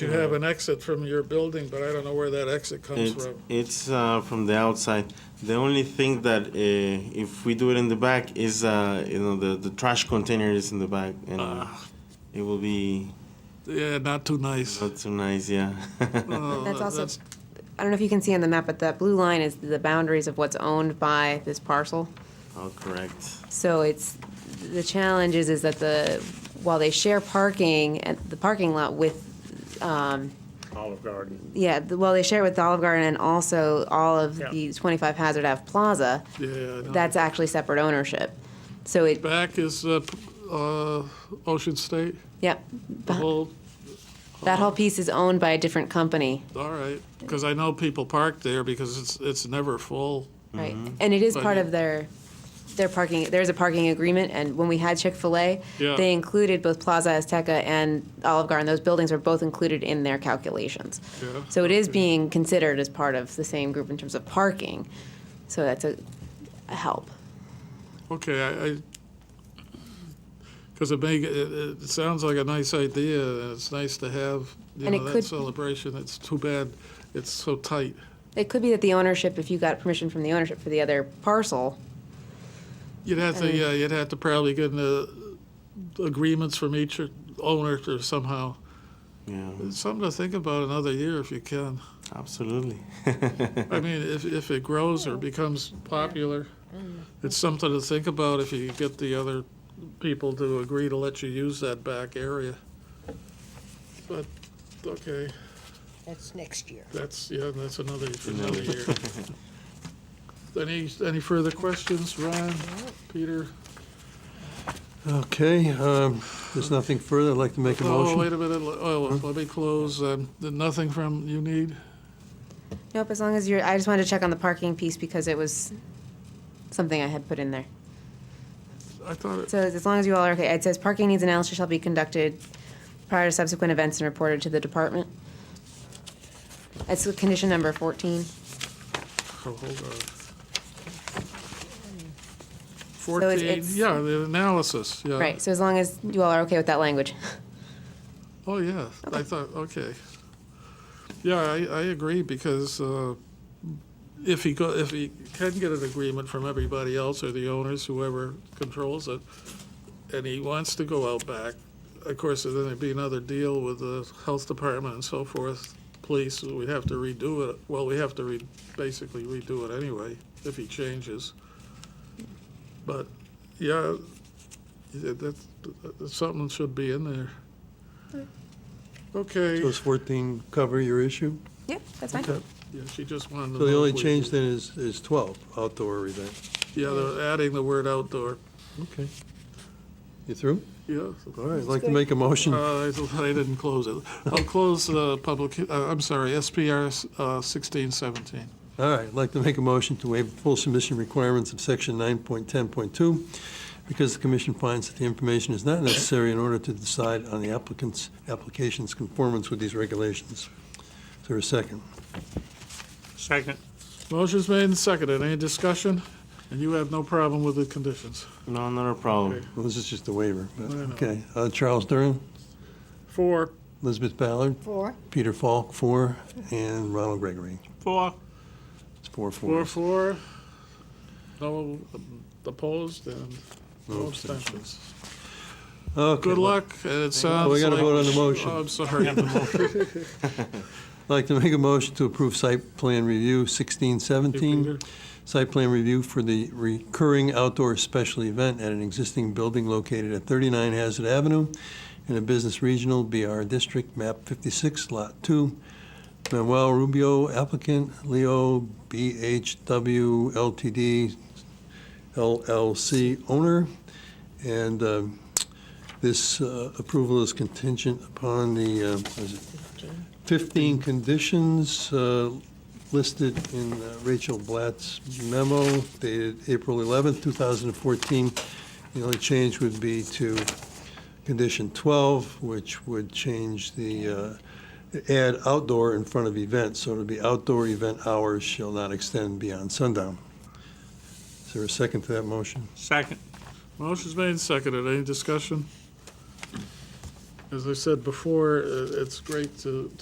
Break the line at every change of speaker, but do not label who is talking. You have an exit from your building, but I don't know where that exit comes
It's,
from.
it's uh, from the outside. The only thing that uh, if we do it in the back is uh, you know the, the trash container is in the back and uh, it will be
Yeah, not too nice.
not so nice. Yeah.
No,
That's also-
that's-
I don't know if you can see on the map, but that blue line is the boundaries of what's owned by this parcel.
All correct.
So it's, the challenge is, is that the, while they share parking at the parking lot with, um,
Olive Garden.
yeah, the- well, they share with the Olive Garden and also all of
Yeah.
the 25 Hazard Ave Plaza,
Yeah. I know.
that's actually separate ownership. So it,
Back is uh, p- uh, Ocean State,
yep,
the whole,
that whole piece is owned by a different company,
all right. Because I know people park there because it's, it's never full.
right? And it
Mm-hmm.
is
But-
part of their, their parking, there's a parking agreement, and when we had Chick-fil-A,
Yeah.
they included both Plaza Azteca and Olive Garden, those buildings are both included in their calculations.
Yeah.
So it is being considered as part of the same group in terms of parking. So that's a, a help.
Okay, I, because it may, it, it it sounds like a nice idea, and it's nice to have, you
And
know,
it
that
could-
celebration. It's too bad it's so tight.
It could be that the ownership, if you got permission from the ownership for the other parcel,
You'd have to,
And-
yeah, you'd have to probably get the agreements from each owner or somehow.
Yeah.
It's Something to think about another year if you can.
Absolutely.
I mean, if, if it grows or becomes popular,
Mm.
it's something to think about if you get the other people to agree to let you use that back area. But, okay,
That's next year.
that's, yeah, that's another, for another year. Any, any further questions, Ron, Peter?
Okay, um, there's nothing further, I'd like to make a
Oh, wait
motion.
a minute, le- oh, let me close, um, th- nothing from, you need?
nope, as long as you're, I just wanted to check on the parking piece because it was something I had put in there.
I thought, it-
So as long as you all are okay, it says parking needs analysis shall be conducted prior to subsequent events and reported to the department. That's condition number fourteen.
oh, hold on.
it's-
Fourteen,
it's-
yeah, the analysis, yeah.
Right, so as long as you all are okay with that language.
Oh, yeah, I thought, okay. Yeah, I, I agree, because, uh, if he go, if he can get an agreement from everybody else or the owners, whoever controls it, and he wants to go out back, of course, then there'd be another deal with the health department and so forth, police, we'd have to redo it, well, we have to re, basically redo it anyway, if he changes. But, yeah, yeah, that's, that's something should be in there. Okay.
Does 14 cover your issue?
Yep, that's fine.
Okay.
Yeah, she just wanted to.
So the
know
only
if we-
change then is, is 12, outdoor event.
Yeah, they're adding the word outdoor,
Okay. You through?
yeah.
All right, I'd like to make a motion.
Uh, I I didn't close it. I'll close the public, he- uh, I'm sorry, SPR uh, 1617.
All right, I'd like to make a motion to waive full submission requirements of section 9.10.2 because the commission finds that the information is not necessary in order to decide on the applicant's, application's conformance with these regulations. Is there a second?
Second.
Motion's made and seconded. Any discussion? And you have no problem with the conditions?
no, not a problem.
Well, this is just a waiver, but,
I know.
okay. Uh, Charles Durin,
Four,
Elizabeth Ballard,
Four.
Peter Falk, four, and Ronald Gregory.
Four.
It's four,
four,
four.
four. No um, opposed and no
No
abstentions.
Okay,
Good
well,
luck, and it sounds like.
gotta vote on the motion.
Oh, I'm sorry.
I'd like to make a motion to approve site plan review sixteen seventeen. Site plan review for the recurring outdoor special event at an existing building located at thirty-nine Hazard Avenue in a business regional BR district, map fifty-six, lot two. Manuel Rubio applicant, Leo BHW LTD LLC owner. And um, this uh, approval is contingent upon the, uh, what is it, 15 conditions uh, listed in uh, Rachel Blatt's memo dated April 11th, 2014. The only change would be to condition 12, which would change the, uh, add outdoor in front of event, so it'll be outdoor event hours shall not extend beyond sundown. Is there a second to that motion?
Second.
Motion's made and seconded. Any discussion? As I said before, uh, it's great to,